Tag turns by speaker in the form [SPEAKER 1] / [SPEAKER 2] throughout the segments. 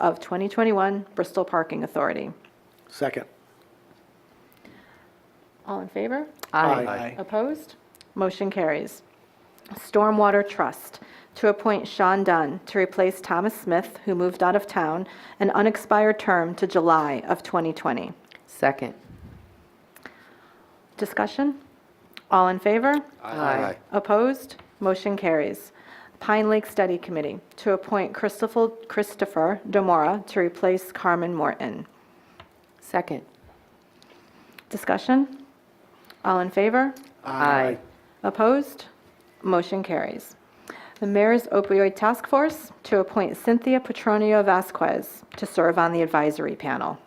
[SPEAKER 1] of 2021 Bristol Parking Authority.
[SPEAKER 2] Second.
[SPEAKER 1] All in favor?
[SPEAKER 2] Aye.
[SPEAKER 1] Opposed? Motion carries. Stormwater Trust, to appoint Sean Dunn to replace Thomas Smith, who moved out of town, an unexpired term to July of 2020.
[SPEAKER 3] Second.
[SPEAKER 1] Discussion? All in favor?
[SPEAKER 3] Aye.
[SPEAKER 1] Opposed? Motion carries. Pine Lake Study Committee, to appoint Christopher Christopher Demora to replace Carmen Morton.
[SPEAKER 3] Second.
[SPEAKER 1] Discussion? All in favor?
[SPEAKER 3] Aye.
[SPEAKER 1] Opposed? Motion carries. The Mayor's Opioid Task Force to appoint Cynthia Petronio Vasquez to serve on the advisory panel.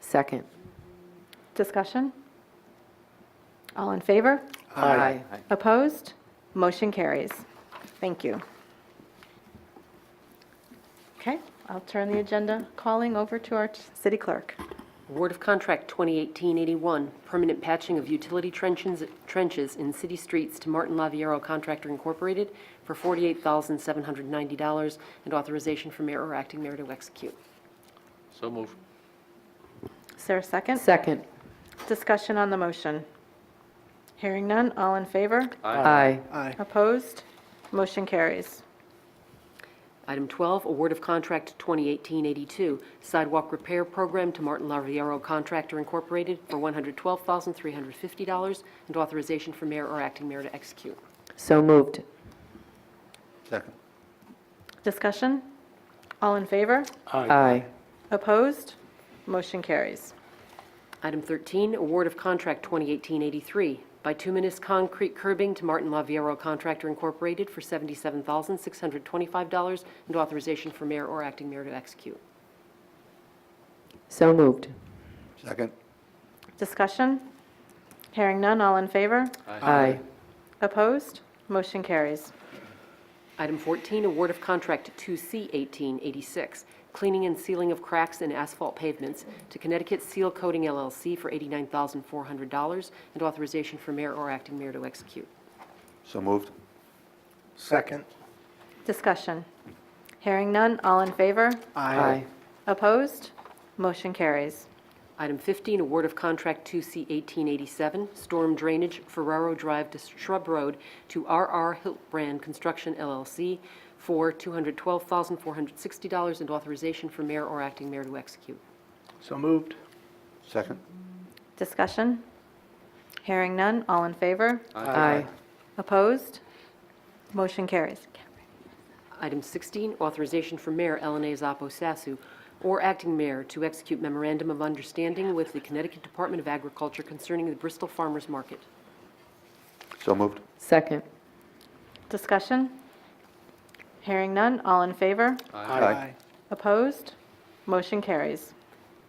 [SPEAKER 3] Second.
[SPEAKER 1] Discussion? All in favor? Opposed? Motion carries. Thank you. Okay, I'll turn the agenda calling over to our t- city clerk.
[SPEAKER 4] Award of Contract 2018-81, permanent patching of utility trenches trenches in city streets to Martin Laviero Contractor Incorporated for $48,790 and authorization for mayor or acting mayor to execute.
[SPEAKER 5] So move.
[SPEAKER 1] Is there a second?
[SPEAKER 3] Second.
[SPEAKER 1] Discussion on the motion. Hearing none, all in favor?
[SPEAKER 3] Aye.
[SPEAKER 2] Aye.
[SPEAKER 1] Opposed? Motion carries.
[SPEAKER 4] Item 12, award of Contract 2018-82, sidewalk repair program to Martin Laviero Contractor Incorporated for $112,350 and authorization for mayor or acting mayor to execute.
[SPEAKER 3] So moved.
[SPEAKER 5] Second.
[SPEAKER 1] Discussion? All in favor?
[SPEAKER 3] Aye.
[SPEAKER 1] Opposed? Motion carries.
[SPEAKER 4] Item 13, award of contract 2018-83, bituminous concrete curbing to Martin Laviero Contractor Incorporated for $77,625 and authorization for mayor or acting mayor to execute.
[SPEAKER 3] So moved.
[SPEAKER 5] Second.
[SPEAKER 1] Discussion? Hearing none, all in favor?
[SPEAKER 3] Aye.
[SPEAKER 1] Opposed? Motion carries.
[SPEAKER 4] Item 14, award of contract 2C1886, cleaning and sealing of cracks in asphalt pavements to Connecticut Seal Coating LLC for $89,400 and authorization for mayor or acting mayor to execute.
[SPEAKER 5] So moved.
[SPEAKER 2] Second.
[SPEAKER 1] Discussion? Hearing none, all in favor?
[SPEAKER 3] Aye.
[SPEAKER 1] Opposed? Motion carries.
[SPEAKER 4] Item 15, award of contract 2C 1887, storm drainage Ferraro Drive to Shrub Road to RR Hiltbrand Construction LLC for $212,460 and authorization for mayor or acting mayor to execute.
[SPEAKER 2] So moved.
[SPEAKER 5] Second.
[SPEAKER 1] Discussion? Hearing none, all in favor?
[SPEAKER 3] Aye.
[SPEAKER 1] Opposed? Motion carries.
[SPEAKER 4] Item 16, authorization for Mayor Ellen A. Zoppo Sasu or acting mayor to execute memorandum of understanding with the Connecticut Department of Agriculture concerning the Bristol Farmers Market.
[SPEAKER 5] So moved.
[SPEAKER 3] Second.
[SPEAKER 1] Discussion? Hearing none, all in favor?
[SPEAKER 5] Aye.
[SPEAKER 1] Opposed? Motion carries.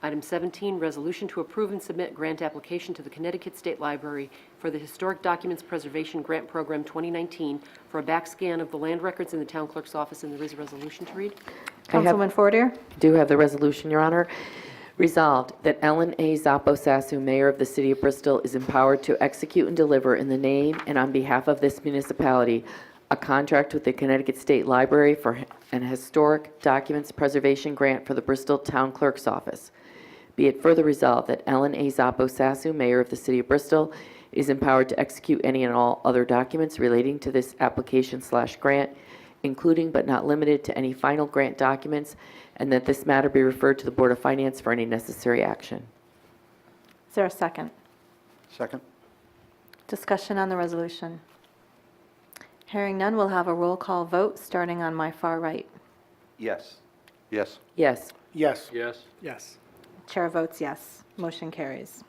[SPEAKER 4] Item 17, resolution to approve and submit grant application to the Connecticut State Library for the Historic Documents Preservation Grant Program 2019 for a back scan of the land records in the town clerk's office, and there is a resolution to read.
[SPEAKER 3] I have-
[SPEAKER 1] Councilman Fortier?
[SPEAKER 3] Do have the resolution, Your Honor. Resolved that Ellen A. Zoppo Sasu, Mayor of the City of Bristol, is empowered to execute and deliver in the name and on behalf of this municipality a contract with the Connecticut State Library for an historic documents preservation grant for the Bristol Town Clerk's Office. Be it further resolved that Ellen A. Zoppo Sasu, Mayor of the City of Bristol, is empowered to execute any and all other documents relating to this application slash grant, including but not limited to any final grant documents, and that this matter be referred to the Board of Finance for any necessary action.
[SPEAKER 1] Is there a second?
[SPEAKER 5] Second.
[SPEAKER 1] Discussion on the resolution. Hearing none, we'll have a roll call vote, starting on my far right.
[SPEAKER 5] Yes. Yes.
[SPEAKER 3] Yes.
[SPEAKER 2] Yes.
[SPEAKER 5] Yes.
[SPEAKER 2] Yes.
[SPEAKER 1] Chair votes yes. Motion carries.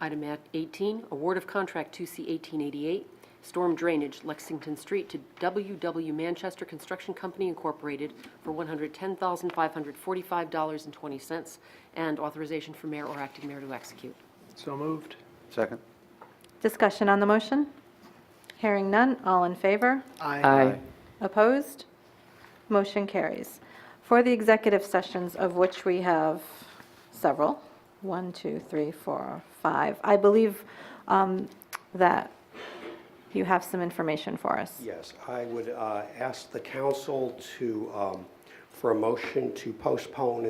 [SPEAKER 4] Item at- 18, award of contract 2C 1888, storm drainage Lexington Street to WW Manchester Construction Company Incorporated for $110,545.20, and authorization for mayor or acting mayor to execute.
[SPEAKER 2] So moved.
[SPEAKER 5] Second.
[SPEAKER 1] Discussion on the motion? Hearing none, all in favor?
[SPEAKER 3] Aye.
[SPEAKER 1] Opposed? Motion carries. For the executive sessions, of which we have several, one, two, three, four, five, I believe um, that you have some information for us.
[SPEAKER 6] Yes, I would uh, ask the council to um, for a motion to postpone